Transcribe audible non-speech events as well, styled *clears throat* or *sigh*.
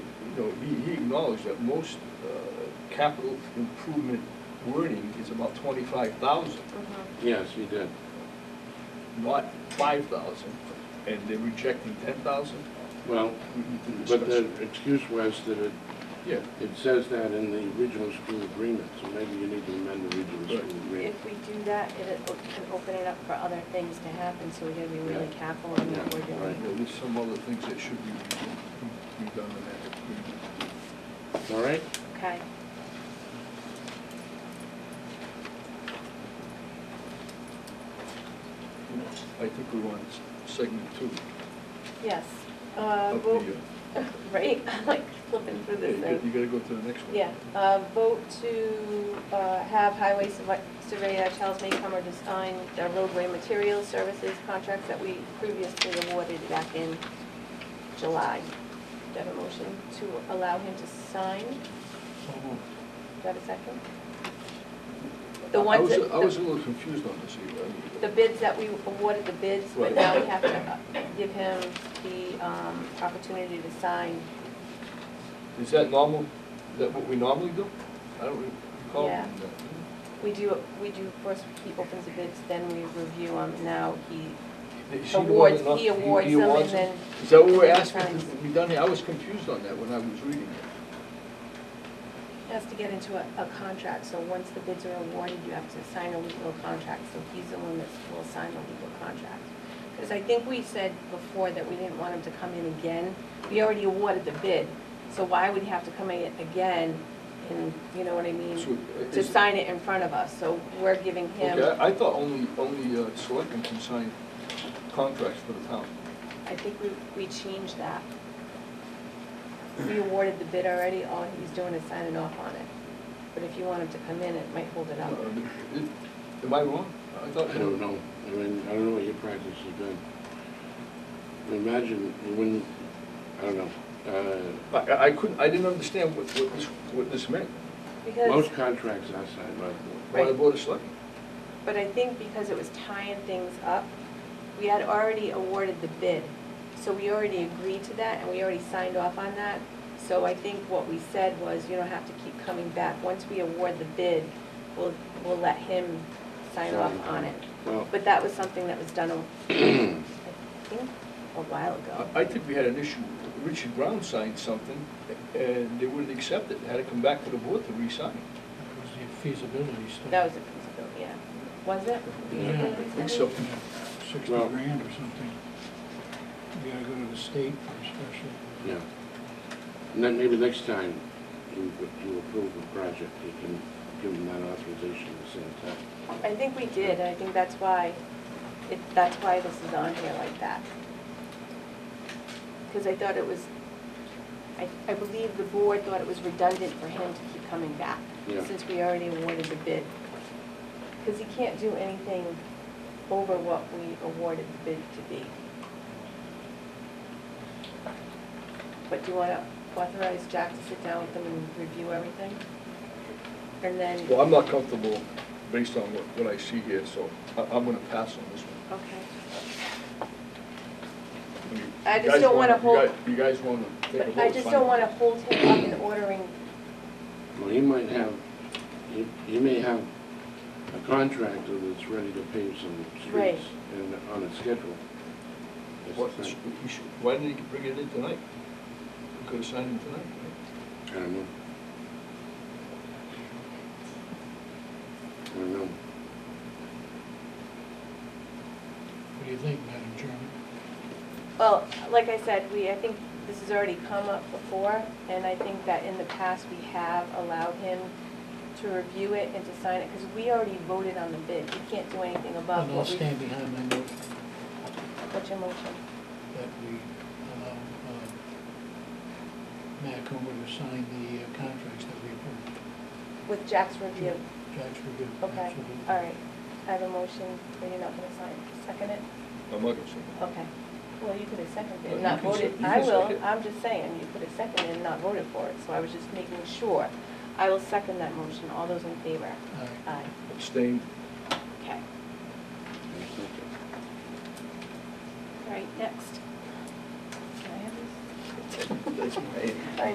know, he, he acknowledged that most, uh, capital improvement wording is about twenty-five thousand, Mhm. Yes, you did. not five thousand, and they're rejecting ten thousand? Well, but the excuse was that it, Yeah, it says that in the regional school agreement, so maybe you need to amend the regional school agreement. If we do that, it it can open it up for other things to happen, so we gotta be really Yeah. careful in what Yeah, we're you right. doing. know, there's some other things that should be re- redone in that agreement. All right? Okay. I think we're on s- segment two Yes. Uh, of the, vote, uh, *laughs* right, *laughs* I'm like flipping through yeah, this you gotta- you thing. gotta go to the next one. Yeah, uh, vote to, uh, have highway surve- surveyor Charles Maycomer to sign the roadway materials services contracts that we previously awarded back in July. Do I have a motion to allow him to sign? Do I have a second? The I- I ones was- that- I was a little confused on this. Eva. The bids that we awarded the bids, but Right. now we have to uh, give him the um, opportunity to sign. Is that normal, is that what we normally do? I don't recall. Yeah. doing that. We do, we do, first he opens the bids, then we review them, now he Is he the one awards, that not- he awards them and awards then. Is that what we're asking? Times. to be done here? I was confused on that when I was reading it. Has to get into a, a contract, so once the bids are awarded, you have to sign a legal contract, so he's the one that will sign the legal contract. Because I think we said before that we didn't want him to come in again, we already awarded the bid, so why would he have to come in again and, you know what I So, mean? uh, To is- sign it in front of us, so we're giving Okay, him, I I thought only, only uh, selectmen can sign contracts for the town. I think we, we changed that. We awarded the bid already, all he's doing is signing off on it, but if you want him to come in, it might hold it Uh, up. it- Am I wrong? I thought. I don't know. I mean, I don't know what your practice has been. Imagine when, I don't know, uh, I- I, I couldn't, I didn't understand what, what this, what this meant. Because. most contracts are signed by the board. Why the Right. board of selectmen? But I think because it was tying things up, we had already awarded the bid. So we already agreed to that and we already signed off on that. So I think what we said was, you don't have to keep coming back. Once we award the bid, we'll, we'll let him sign off on it. Well, But that was something that was done, a- *clears throat* I think, a while ago. I- I think we had an issue, Richard Brown signed something, and they wouldn't accept it, had to come back to the board to re-sign. That was the feasibility study. That was a feasibility, yeah. Was it? Yeah, I think so. Yeah, Sixty Well- grand or something. You gotta go to the state for a special. yeah. And then maybe next time you, you approve a project, you can give them that authorization at the same time. I think we did, and I think that's why, it, that's why this is on here like that. Because I thought it was, I, I believe the board thought it was redundant for him to keep coming back, Yeah. since we already awarded the bid. Because he can't do anything over what we awarded the bid to be. But do you want to authorize Jack to sit down with them and review everything? And then, Well, I'm not comfortable based on what, what I see here, so I, I'm gonna pass on this one. okay. I mean, I you just guys don't wanna- you wanna hold- guys- You guys wanna take a vote? But I just fine. don't want to hold him up in ordering, Well, he might have, he, he may have a contractor that's ready to pave some Right. streets and on a schedule. That's the What- thing. you should- Why didn't he bring it in tonight? We could've signed it tonight, right? I don't know. I don't know. What do you think, Madam Chairman? well, like I said, we, I think this has already come up before, and I think that in the past, we have allowed him to review it and to sign it, because we already voted on the bid. We can't do anything above And I'll what we, stand behind my motion what's your motion? that we allow um, Matt Comer to sign the uh, contracts that we approved. With Jack's review. Judge review. Okay, absolutely. all right. I have a motion, but you're not going to sign. Second it? I'm not gonna say that. Okay. Well, you could have seconded Well, and you not can voted. sec- you I can will, second. I'm just saying, you could have seconded and not voted for it, so I was just making sure. I will second that motion. All those in favor? All Aye. right. Abstain. Okay. I was thinking. All right, next. Can I have *laughs* this? That's my-